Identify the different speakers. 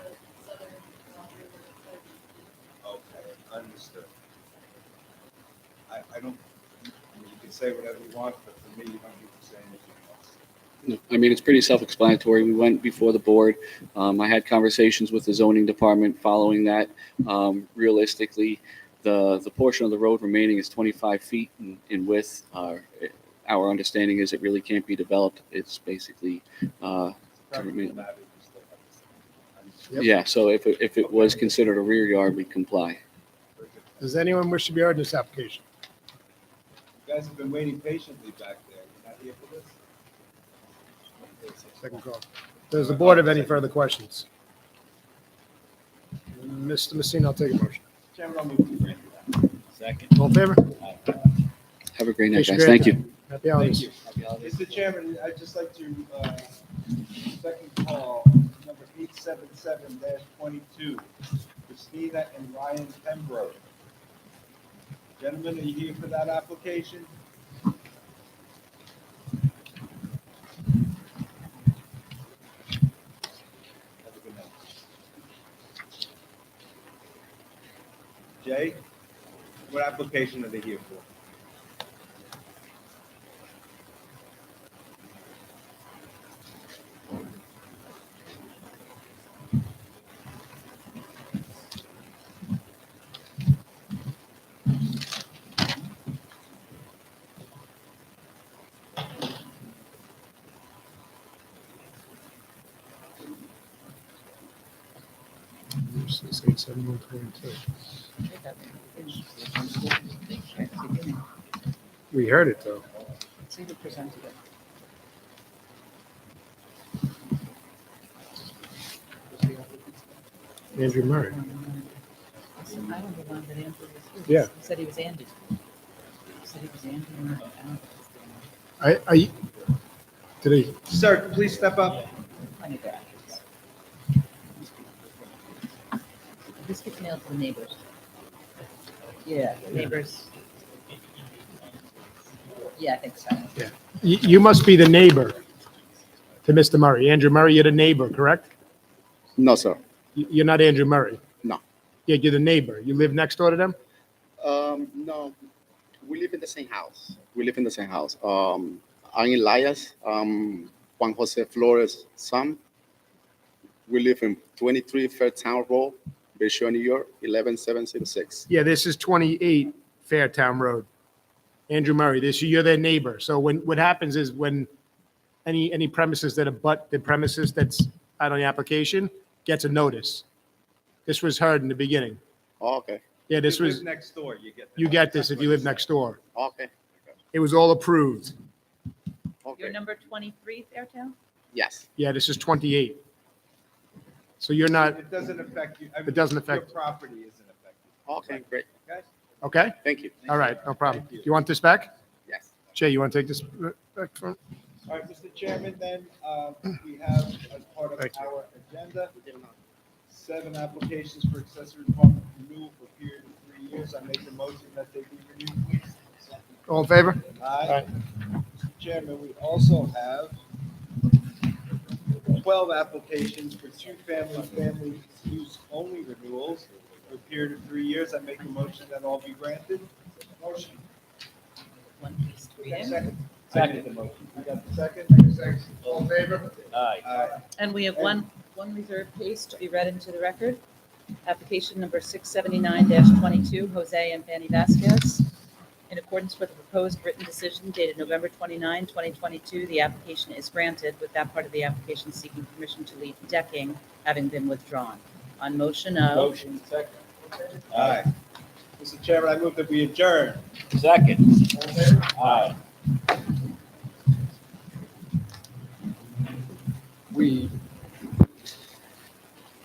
Speaker 1: is that I, I don't, you can say whatever you want, but for me, you don't need to say anything else.
Speaker 2: No, I mean, it's pretty self-explanatory. We went before the board. Um, I had conversations with the zoning department following that. Um, realistically, the, the portion of the road remaining is 25 feet in- in width. Uh, it- Our understanding is it really can't be developed. It's basically, uh,
Speaker 1: Practical
Speaker 2: Government.
Speaker 1: matter is that I'm-
Speaker 3: Yep.
Speaker 2: yeah, so if, it- if it was considered a rear yard, we'd comply.
Speaker 1: very good.
Speaker 3: Does anyone wish to be heard in this application?
Speaker 1: You guys have been waiting patiently back there. You're not here for this?
Speaker 3: Second call. Does the board have any further questions? Mr. Messina, I'll take a motion.
Speaker 1: Chairman, I'll move to grant you
Speaker 3: All in favor?
Speaker 1: that.
Speaker 2: Have a great night,
Speaker 3: Appreciate
Speaker 2: guys.
Speaker 3: it.
Speaker 2: Thank you.
Speaker 3: Happy holidays.
Speaker 1: Thank you. Mr. Chairman, I'd just like to, uh, second call, number eight seven seven twenty-two, Christina and Ryan Pembroke. Gentlemen, are you here for that application? Have a good night. Jay, what application are they here for?
Speaker 3: Six, eight, seven, one, twenty-two. We heard it, though.
Speaker 4: See who presented it.
Speaker 3: Andrew Murray.
Speaker 4: I don't know why, but Andrew was here.
Speaker 3: Yeah.
Speaker 4: He Said he was Andy. He Said he was Andy. and I found
Speaker 3: I, I, did he,
Speaker 1: Sir, please step up.
Speaker 4: plenty of graduates. This gets mailed to the neighbors. Yeah, neighbors. Yeah, I think so.
Speaker 3: you, you must be the neighbor to Mr. Murray. Andrew Murray, you're the neighbor, correct?
Speaker 2: No, sir.
Speaker 3: You- You're not Andrew Murray?
Speaker 2: No.
Speaker 3: Yeah, you're the neighbor. You live next door to them?
Speaker 2: Um, no, we live in the same house. We live in the same house. Um, I'm Elias, um, Juan Jose Flores' son. We live in 23 Fairtown Road, Bayshore, New York, 11706.
Speaker 3: Yeah, this is 28 Fairtown Road. Andrew Murray, this, you're their neighbor. So when, what happens is when any, any premises that abut the premises that's out on the application gets a notice. This was heard in the beginning.
Speaker 2: Oh, okay,
Speaker 3: Yeah, this
Speaker 1: You live
Speaker 3: was,
Speaker 1: Next door, you get. that.
Speaker 3: you get this if you live next door.
Speaker 2: okay,
Speaker 3: It was all approved.
Speaker 2: okay.
Speaker 4: You're number twenty-three, Fairtown?
Speaker 2: yes,
Speaker 3: Yeah, this is 28. So you're not,
Speaker 1: It doesn't affect you. I mean,
Speaker 3: It doesn't
Speaker 1: Your
Speaker 3: affect-
Speaker 1: property isn't affected,
Speaker 2: okay, great.
Speaker 1: okay?
Speaker 3: okay?
Speaker 2: Thank you.
Speaker 3: All right, no problem.
Speaker 1: Thank you.
Speaker 3: You want this back?
Speaker 2: Yes.
Speaker 3: Jay, you want to take this back from?
Speaker 1: All right, Mr. Chairman, then, uh, we have as part of
Speaker 3: Thank you.
Speaker 1: our agenda, seven applications for accessory apartment renewal for a period of three years. I make the motion that they be renewed, please.
Speaker 3: All in favor?
Speaker 1: Aye. Mr. Chairman, we also have twelve applications for two-family, family use only renewals for a period of three years. I make a motion that all be granted. Motion.
Speaker 4: One, please, three in.
Speaker 1: Second. Second. the motion. We got the second? Second. All in favor? Aye.
Speaker 4: And we have one, one reserved case to be read into the record. Application number 679-22, Jose and Fanny Vasquez. In accordance with the proposed written decision dated November 29, 2022, the application is granted with that part of the application seeking permission to leave decking having been withdrawn. On motion of,
Speaker 1: Motion, second. Aye. Mr. Chairman, I move that we adjourn.
Speaker 5: Second.
Speaker 1: All in favor?
Speaker 5: Aye.
Speaker 1: We